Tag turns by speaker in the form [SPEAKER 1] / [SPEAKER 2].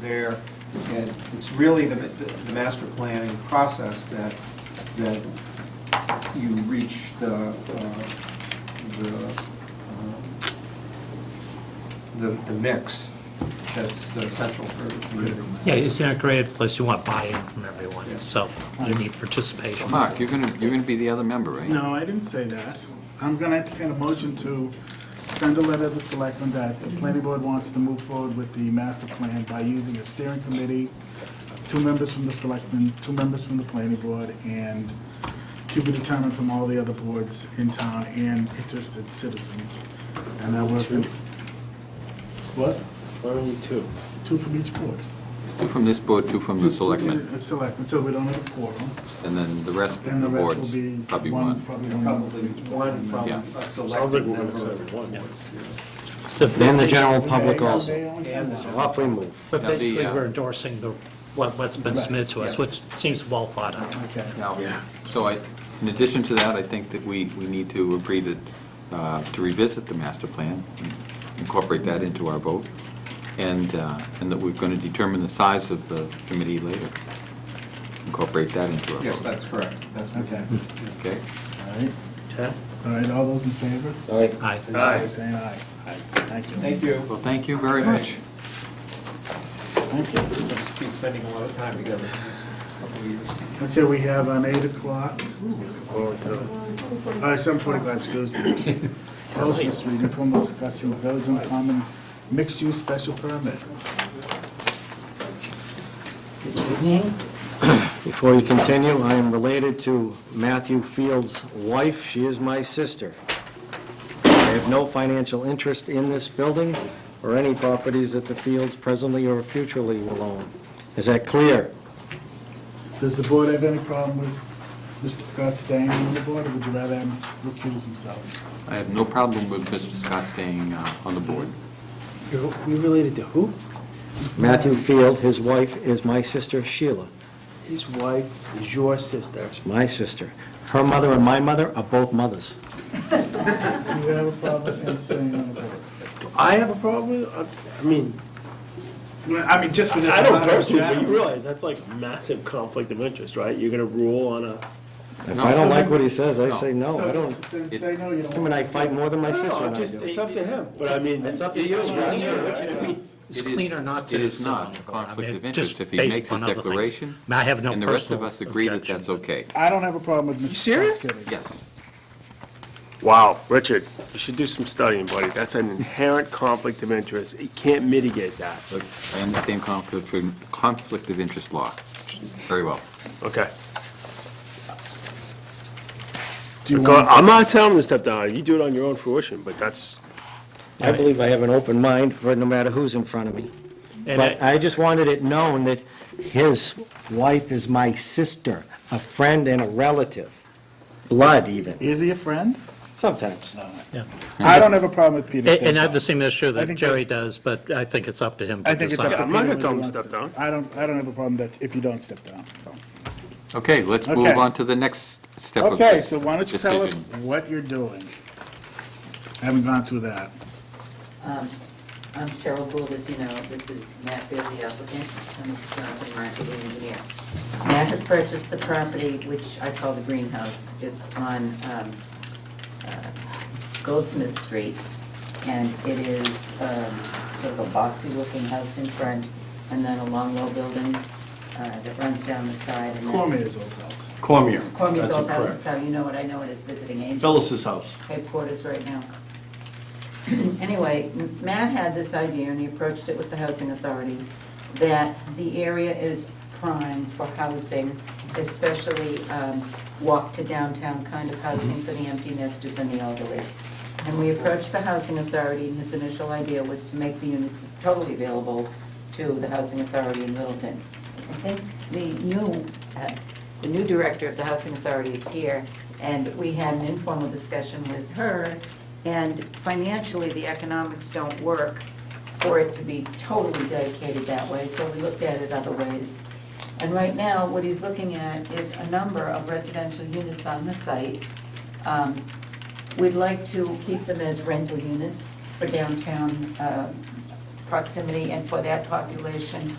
[SPEAKER 1] there. And it's really the, the master planning process that, that you reach the, uh, the, um, the, the mix that's essential for the community.
[SPEAKER 2] Yeah, it's not great, plus you want buy-in from everyone,
[SPEAKER 1] Yeah.
[SPEAKER 2] so you need participation.
[SPEAKER 3] Mark, you're gonna, you're gonna be the other member, right?
[SPEAKER 4] No, I didn't say that. I'm gonna entertain a motion to send a letter to the selectmen that the planning board wants to move forward with the master plan by using a steering committee, two members from the selectmen, two members from the planning board, and to be determined from all the other boards in town and interested citizens. And I work in, what?
[SPEAKER 5] Only two.
[SPEAKER 4] Two from each board.
[SPEAKER 3] Two from this board, two from the selectmen,
[SPEAKER 4] Uh, Selectmen, so we don't have a quorum,
[SPEAKER 3] and then the rest of
[SPEAKER 4] and
[SPEAKER 3] the
[SPEAKER 4] the rest will
[SPEAKER 3] boards,
[SPEAKER 4] be
[SPEAKER 3] probably
[SPEAKER 4] one,
[SPEAKER 3] one.
[SPEAKER 4] probably
[SPEAKER 1] Probably
[SPEAKER 4] one.
[SPEAKER 1] one from
[SPEAKER 3] Yeah.
[SPEAKER 1] a
[SPEAKER 5] Sounds like
[SPEAKER 1] selected
[SPEAKER 5] we're gonna
[SPEAKER 1] member.
[SPEAKER 5] send one.
[SPEAKER 2] So
[SPEAKER 5] And the
[SPEAKER 2] basi-
[SPEAKER 5] general public also.
[SPEAKER 1] And the
[SPEAKER 5] So off we move.
[SPEAKER 2] But
[SPEAKER 3] Now, the,
[SPEAKER 2] basically,
[SPEAKER 3] uh,
[SPEAKER 2] we're endorsing the, what, what's been submitted to us,
[SPEAKER 1] yeah.
[SPEAKER 2] which seems well thought out.
[SPEAKER 4] Okay.
[SPEAKER 3] Now, so I, in addition to that, I think that we, we need to agree that, uh, to revisit the master plan, incorporate that into our vote, and, uh, and that we're gonna determine the size of the committee later. Incorporate that into our vote.
[SPEAKER 1] Yes, that's correct. That's what-
[SPEAKER 4] Okay.
[SPEAKER 3] Okay?
[SPEAKER 4] All right.
[SPEAKER 2] Okay?
[SPEAKER 4] All right, all those in favor?
[SPEAKER 5] Aye.
[SPEAKER 2] Aye.
[SPEAKER 4] Signify by saying aye. Aye. Thank you.
[SPEAKER 1] Thank you.
[SPEAKER 3] Well, thank you very much.
[SPEAKER 4] Thank you.
[SPEAKER 1] We'll just be spending a lot of time together in the next couple of years.
[SPEAKER 4] Okay, we have an eight o'clock. All right, seven forty-five, excuse me. Elgin Street, informal discussion of village and common mixed-use special permit.
[SPEAKER 5] Before you continue, I am related to Matthew Field's wife. She is my sister. I have no financial interest in this building or any properties that the Fields presently or futurely will own. Is that clear?
[SPEAKER 4] Does the board have any problem with Mr. Scott staying on the board, or would you rather him recuse himself?
[SPEAKER 3] I have no problem with Mr. Scott staying uh, on the board.
[SPEAKER 6] You're you're related to who?
[SPEAKER 5] Matthew Field, his wife is my sister Sheila.
[SPEAKER 6] His wife is your sister.
[SPEAKER 5] It's my sister. Her mother and my mother are both mothers.
[SPEAKER 4] Do you have a problem with him staying on the board?
[SPEAKER 6] Do I have a problem? with- I- I mean,
[SPEAKER 4] Well, I mean, just for this.
[SPEAKER 6] I don't
[SPEAKER 4] matter,
[SPEAKER 6] personally, but you
[SPEAKER 4] generally.
[SPEAKER 6] realize that's like a massive conflict of interest, right? You're gonna rule on a,
[SPEAKER 5] If I don't like what he says, I say no. I don't,
[SPEAKER 4] So, Then say no, you don't.
[SPEAKER 5] I mean, I fight more than my
[SPEAKER 6] I don't
[SPEAKER 5] sister
[SPEAKER 6] know,
[SPEAKER 5] and I
[SPEAKER 6] just,
[SPEAKER 5] do.
[SPEAKER 6] it's up to him, but I mean. It's up to you.
[SPEAKER 2] It's
[SPEAKER 3] It is-
[SPEAKER 2] cleaner not to.
[SPEAKER 3] It is
[SPEAKER 2] sit on
[SPEAKER 3] not
[SPEAKER 2] the
[SPEAKER 3] a
[SPEAKER 2] board. I
[SPEAKER 3] conflict
[SPEAKER 2] mean,
[SPEAKER 3] of
[SPEAKER 2] just
[SPEAKER 3] interest if he
[SPEAKER 2] based
[SPEAKER 3] makes his
[SPEAKER 2] on other things.
[SPEAKER 3] declaration.
[SPEAKER 2] I mean, I have no
[SPEAKER 3] And the rest of
[SPEAKER 2] personal
[SPEAKER 3] us agree that
[SPEAKER 2] objection,
[SPEAKER 3] that's
[SPEAKER 2] but-
[SPEAKER 3] okay.
[SPEAKER 4] I don't have a problem with Mr. Scott.
[SPEAKER 6] serious?
[SPEAKER 4] sitting.
[SPEAKER 3] Yes.
[SPEAKER 6] Wow, Richard, you should do some studying, buddy. That's an inherent conflict of interest. You can't mitigate that.
[SPEAKER 3] Look, I understand conflict, of- conflict of interest law. Very well.
[SPEAKER 6] Okay.
[SPEAKER 4] Do you
[SPEAKER 6] Go-
[SPEAKER 4] want-
[SPEAKER 6] I'm not telling him to step down. You do it on your own fruition, but that's,
[SPEAKER 5] I believe I have an open mind for no matter who's in front of me.
[SPEAKER 2] And I-
[SPEAKER 5] But I just wanted it known that his wife is my sister, a friend and a relative, blood even,
[SPEAKER 4] Is he a friend?
[SPEAKER 5] sometimes.
[SPEAKER 4] I don't have a problem with Peter
[SPEAKER 2] And
[SPEAKER 4] staying
[SPEAKER 2] and I have
[SPEAKER 4] on.
[SPEAKER 2] the same issue
[SPEAKER 4] I
[SPEAKER 2] that
[SPEAKER 4] think
[SPEAKER 2] Jerry does, but I think it's up to him
[SPEAKER 4] I
[SPEAKER 2] to
[SPEAKER 4] think it's up to
[SPEAKER 2] decide.
[SPEAKER 4] Peter.
[SPEAKER 6] I'm not gonna
[SPEAKER 4] when he
[SPEAKER 6] tell him to
[SPEAKER 4] wants
[SPEAKER 6] step down.
[SPEAKER 4] I don't, I don't have a problem that, if you don't step down, so.
[SPEAKER 3] Okay, let's move
[SPEAKER 4] Okay.
[SPEAKER 3] on to the next step of
[SPEAKER 4] Okay,
[SPEAKER 3] this
[SPEAKER 4] so why don't you tell us
[SPEAKER 3] decision.
[SPEAKER 4] what you're doing? I haven't gone through that.
[SPEAKER 7] Um, I'm Cheryl Gould, as you know, this is Matt Field, the applicant, and this is Jonathan Martin, the engineer. Matt has purchased the property, which I call the greenhouse, it's on um, uh, Goldsmith Street, and it is um, sort of a boxy-looking house in front, and then a long low building uh, that runs down the side, and that's...
[SPEAKER 4] Cormier's old house.
[SPEAKER 8] Cormier.
[SPEAKER 7] Cormier's
[SPEAKER 8] That's
[SPEAKER 7] old house
[SPEAKER 8] incorrect.
[SPEAKER 7] is how you know it, I know it is visiting angel
[SPEAKER 8] Phyllis's house.
[SPEAKER 7] headquarters right now. Anyway, M- Matt had this idea, and he approached it with the housing authority, that the area is prime for housing, especially um, walk to downtown kind of housing for the empty nesters and the elderly. And we approached the housing authority, and his initial idea was to make the units totally available to the housing authority in Littleton. I think the new, uh, the new director of the housing authority is here, and we had an informal discussion with her, and financially, the economics don't work for it to be totally dedicated that way, so we looked at it other ways. And right now, what he's looking at is a number of residential units on the site. Um, We'd like to keep them as rental units for downtown uh, proximity and for that population.